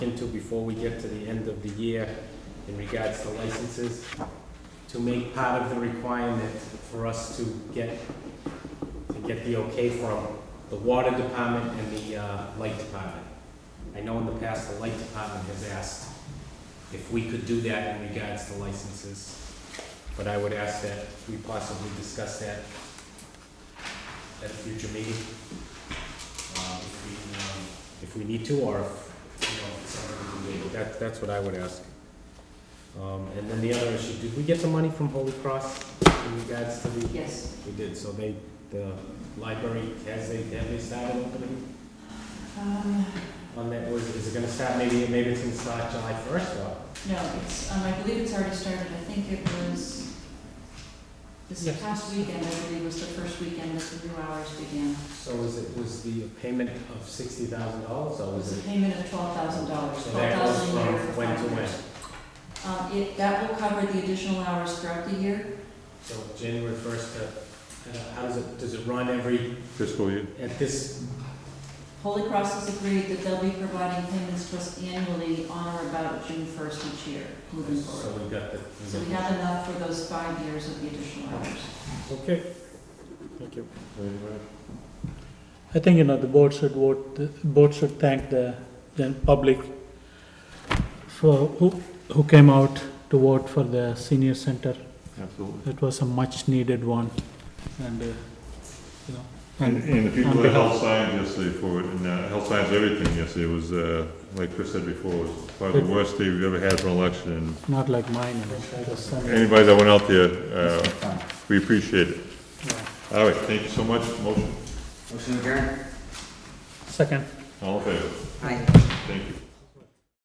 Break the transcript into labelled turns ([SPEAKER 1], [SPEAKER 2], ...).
[SPEAKER 1] into before we get to the end of the year in regards to licenses, to make part of the requirement for us to get, to get the okay from the water department and the uh, light department. I know in the past, the light department has asked if we could do that in regards to licenses, but I would ask that we possibly discuss that at a future meeting. uh, If we, um, if we need to, or if, you know, if it's something we can do. That, that's what I would ask. Um, And then the other issue, did we get the money from Holy Cross in regards to the?
[SPEAKER 2] Yes,
[SPEAKER 1] We did, so they, the library, has they, have they started opening
[SPEAKER 2] um,
[SPEAKER 1] on that, was, is it gonna start, maybe, maybe it's gonna start July first, or?
[SPEAKER 2] no, it's, um, I believe it's already started, I think it was, this
[SPEAKER 1] Yes.
[SPEAKER 2] past weekend, I believe, was the first weekend that the new hours began.
[SPEAKER 1] So is it, was the payment of sixty thousand dollars, or
[SPEAKER 2] It was
[SPEAKER 1] was
[SPEAKER 2] a
[SPEAKER 1] it?
[SPEAKER 2] payment of twelve thousand dollars,
[SPEAKER 1] So
[SPEAKER 2] twelve
[SPEAKER 1] that goes
[SPEAKER 2] thousand a year
[SPEAKER 1] from
[SPEAKER 2] for
[SPEAKER 1] when to
[SPEAKER 2] five
[SPEAKER 1] when?
[SPEAKER 2] years. Um, it, that will cover the additional hours throughout the year,
[SPEAKER 1] So January first to, uh, how does it, does it run every,
[SPEAKER 3] fiscal year.
[SPEAKER 1] at this,
[SPEAKER 2] Holy Cross has agreed that they'll be providing payments to us annually on or about June first each year, moving
[SPEAKER 1] so
[SPEAKER 2] forward.
[SPEAKER 1] we got the.
[SPEAKER 2] So we have enough for those five years of the additional hours.
[SPEAKER 1] Okay, thank you.
[SPEAKER 4] I think, you know, the board should vote, the board should thank the, the public for, who, who came out to vote for the senior center.
[SPEAKER 3] Absolutely.
[SPEAKER 4] It was a much-needed one, and, uh, you know,
[SPEAKER 3] And,
[SPEAKER 4] and
[SPEAKER 3] and the people
[SPEAKER 4] on
[SPEAKER 3] at
[SPEAKER 4] behalf-
[SPEAKER 3] Health Science yesterday for it, and uh, Health Science Everything yesterday was, uh, like Chris said before, was probably the worst day we've ever had for an election. And
[SPEAKER 4] not like mine, you know, it was, um,
[SPEAKER 3] Anybody that went out there, uh, we appreciate it.
[SPEAKER 4] yeah.
[SPEAKER 3] All right, thank you so much. Motion,
[SPEAKER 5] Motion adjourned.
[SPEAKER 4] Second.
[SPEAKER 3] all in favor?
[SPEAKER 5] Aye.
[SPEAKER 3] Thank you.